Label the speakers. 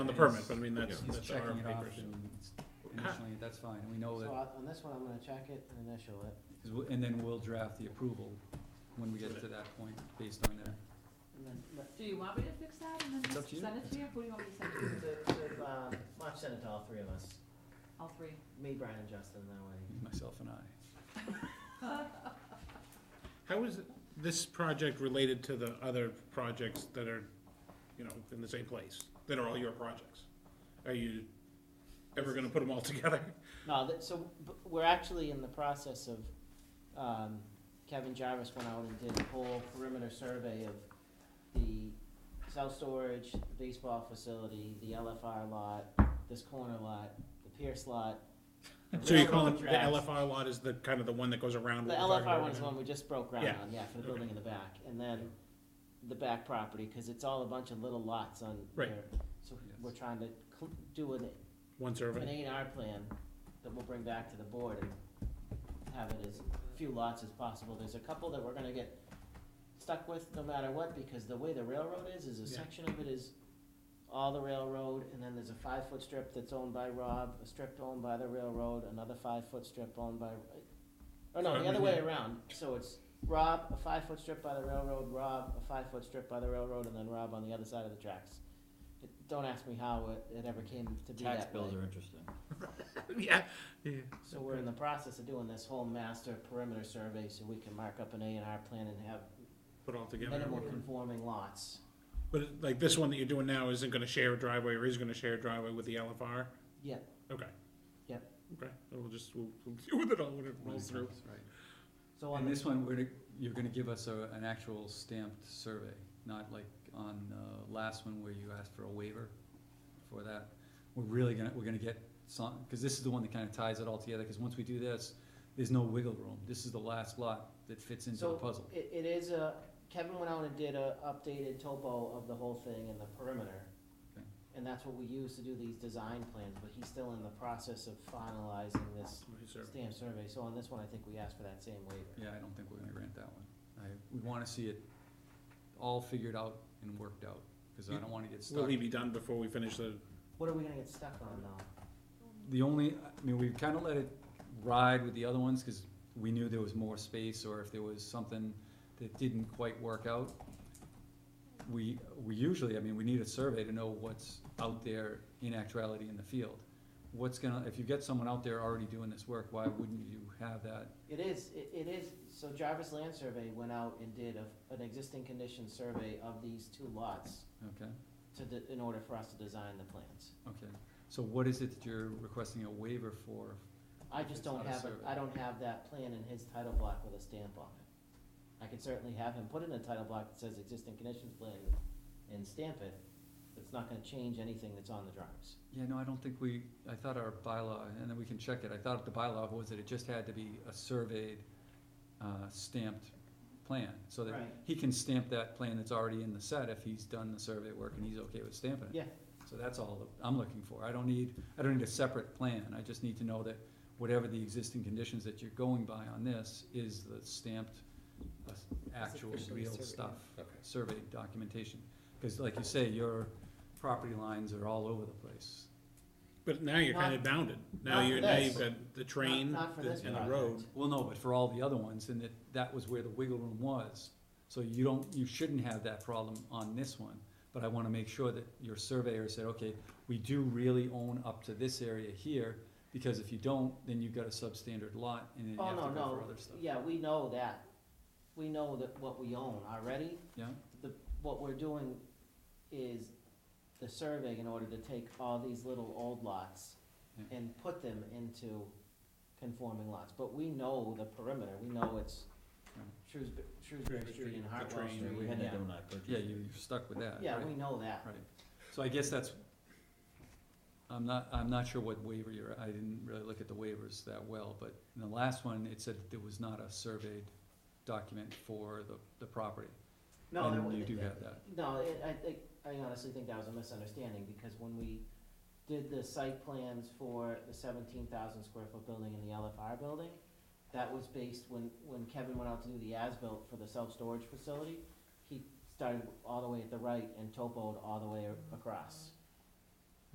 Speaker 1: on the
Speaker 2: It
Speaker 1: permit,
Speaker 2: is-
Speaker 1: but I mean, that's,
Speaker 2: He's
Speaker 1: that's our
Speaker 2: checking it off
Speaker 1: papers.
Speaker 2: and it's initially, that's fine, we know
Speaker 3: So
Speaker 2: that,
Speaker 3: I- on this one, I'm gonna check it and initial it,
Speaker 2: 'cause we'll- and then we'll draft the approval when we get to that point, based on that.
Speaker 3: and then, but,
Speaker 4: Do you want me to fix that and
Speaker 2: It's
Speaker 4: then
Speaker 2: up to
Speaker 4: just
Speaker 2: you.
Speaker 4: send it to you? Who do you want me to send it to?
Speaker 3: so, so, um, I'll send it to all three of us,
Speaker 4: All three.
Speaker 3: me, Brian, and Justin, that way.
Speaker 2: myself and I.
Speaker 1: How is this project related to the other projects that are, you know, in the same place, that are all your projects? Are you ever gonna put them all together?
Speaker 3: No, that, so, b we're actually in the process of, um, Kevin Jarvis went out and did a whole perimeter survey of the self-storage, the baseball facility, the LFR lot, this corner lot, the Pierce lot. the
Speaker 1: So you're
Speaker 3: railroad
Speaker 1: calling, the
Speaker 3: tracks.
Speaker 1: LFR lot is the, kind of the one that goes around?
Speaker 3: The
Speaker 1: what we're talking
Speaker 3: LFR
Speaker 1: about
Speaker 3: one is
Speaker 1: right now?
Speaker 3: one we just broke ground
Speaker 1: Yeah.
Speaker 3: on, yeah, for the
Speaker 1: Okay.
Speaker 3: building in the back, and then the back property, cause it's all a bunch of little lots on there.
Speaker 1: Right.
Speaker 3: So
Speaker 2: Yes.
Speaker 3: we're trying to cl- do an,
Speaker 1: One
Speaker 3: an
Speaker 1: survey?
Speaker 3: A and R plan that we'll bring back to the board and have it as few lots as possible. There's a couple that we're gonna get stuck with no matter what, because the way the railroad is, is a
Speaker 1: Yeah.
Speaker 3: section of it is all the railroad, and then there's a five-foot strip that's owned by Rob, a strip owned by the railroad, another five-foot strip owned by, or no, the other way
Speaker 1: Yeah.
Speaker 3: around, so it's Rob, a five-foot strip by the railroad, Rob, a five-foot strip by the railroad, and then Rob on the other side of the tracks. It- Don't ask me how it, it ever came to be that way.
Speaker 5: Tax bills are interesting.
Speaker 1: Yeah, yeah.
Speaker 3: So we're in the process of doing this whole master perimeter survey, so we can mark up an A and R plan and have
Speaker 1: Put it all together.
Speaker 3: minimal conforming lots.
Speaker 1: But it- like this one that you're doing now isn't gonna share a driveway or is gonna share a driveway with the LFR?
Speaker 3: Yeah,
Speaker 1: Okay.
Speaker 3: Yep.
Speaker 1: Okay, then we'll just, we'll, we'll deal with it all when it rolls through.
Speaker 2: Right.
Speaker 3: so on
Speaker 2: And
Speaker 3: the
Speaker 2: this one, we're, gonna- you're gonna give us a, an actual stamped survey, not like on the last one where you asked for a waiver for that. We're really gonna, we're gonna get some, cause this is the one that kinda ties it all together, cause once we do this, there's no wiggle room. This is the last lot that fits into the
Speaker 3: So,
Speaker 2: puzzle.
Speaker 3: It, it is a, Kevin went out and did a updated topo of the whole thing and the perimeter.
Speaker 2: Okay.
Speaker 3: And that's what we use to do these design plans, but he's still in the process of finalizing this stamp survey, so on this one, I think we asked for that same waiver.
Speaker 2: Yeah, I don't think we're gonna grant that one. I, we wanna see it all figured out and worked out, cause I don't wanna get
Speaker 1: Will
Speaker 2: stuck.
Speaker 1: he be done before we finish the,
Speaker 3: What are we gonna get stuck on though?
Speaker 2: The only, I mean, we've kinda let it ride with the other ones, cause we knew there was more space, or if there was something that didn't quite work out. We, we usually, I mean, we need a survey to know what's out there in actuality in the field. What's gonna, if you get someone out there already doing this work, why wouldn't you have that?
Speaker 3: It is, it, it is, so Jarvis Land Survey went out and did a, an existing condition survey of these two lots
Speaker 2: Okay,
Speaker 3: to, de- in order for us to design the plans.
Speaker 2: okay. So what is it that you're requesting a waiver for,
Speaker 3: I just
Speaker 2: It's
Speaker 3: don't
Speaker 2: not a
Speaker 3: have, a-
Speaker 2: survey.
Speaker 3: I don't have that plan in his title block with a stamp on it. I could certainly have him put in a title block that says existing conditions plan and stamp it, but it's not gonna change anything that's on the drawings.
Speaker 2: Yeah, no, I don't think we, I thought our bylaw, and then we can check it, I thought the bylaw was that it just had to be a surveyed, uh, stamped plan, so that
Speaker 3: Right.
Speaker 2: he can stamp that plan that's already in the set if he's done the survey work and he's okay with stamping it.
Speaker 3: Yeah.
Speaker 2: So that's all that I'm looking for, I don't need, I don't need a separate plan, I just need to know that whatever the existing conditions that you're going by on this is the stamped, uh, actual
Speaker 6: officially
Speaker 2: real
Speaker 6: surveyed.
Speaker 2: stuff,
Speaker 1: Okay.
Speaker 2: surveyed documentation. Cause like you say, your property lines are all over the place.
Speaker 1: but now you're kind of
Speaker 3: Not-
Speaker 1: bounded. Now
Speaker 3: not
Speaker 1: you're,
Speaker 3: for
Speaker 1: now
Speaker 3: this.
Speaker 1: you've got the train
Speaker 3: Not- not for
Speaker 1: the-
Speaker 3: this
Speaker 1: and the
Speaker 3: project. Oh,
Speaker 1: road.
Speaker 2: Well, no, but for all the other ones, and that, that was where the wiggle room was. So you don't, you shouldn't have that problem on this one. But I wanna make sure that your surveyor said, okay, we do really own up to this area here, because if you don't, then you've got a substandard lot, and then you
Speaker 3: Oh,
Speaker 2: have to
Speaker 3: no,
Speaker 2: go
Speaker 3: no,
Speaker 2: for other stuff.
Speaker 3: yeah, we know that. We know that what we own already,
Speaker 2: Yeah,
Speaker 3: the, what we're doing is the survey in order to take all these little old lots
Speaker 2: Yeah.
Speaker 3: and put them into conforming lots, but we know the perimeter, we know it's
Speaker 2: Right.
Speaker 3: Shrewsbury, Shrewsbury
Speaker 1: Shrewsbury
Speaker 3: Street and
Speaker 1: Street, the
Speaker 3: Hartwell
Speaker 1: train,
Speaker 3: Street.
Speaker 5: We had to
Speaker 3: yeah.
Speaker 5: do when I purchased.
Speaker 2: yeah, you- you're stuck with that,
Speaker 3: Yeah,
Speaker 2: right?
Speaker 3: we know that,
Speaker 2: Right, so I guess that's, I'm not, I'm not sure what waiver you're, I didn't really look at the waivers that well, but in the last one, it said that there was not a surveyed document for the, the property.
Speaker 3: no, there
Speaker 2: And
Speaker 3: was.
Speaker 2: you do have that,
Speaker 3: No, it, I think, I honestly think that was a misunderstanding, because when we did the site plans for the seventeen thousand square foot building in the LFR building, that was based when, when Kevin went out to do the as-built for the self-storage facility, he started all the way at the right and topoed all the way a- across.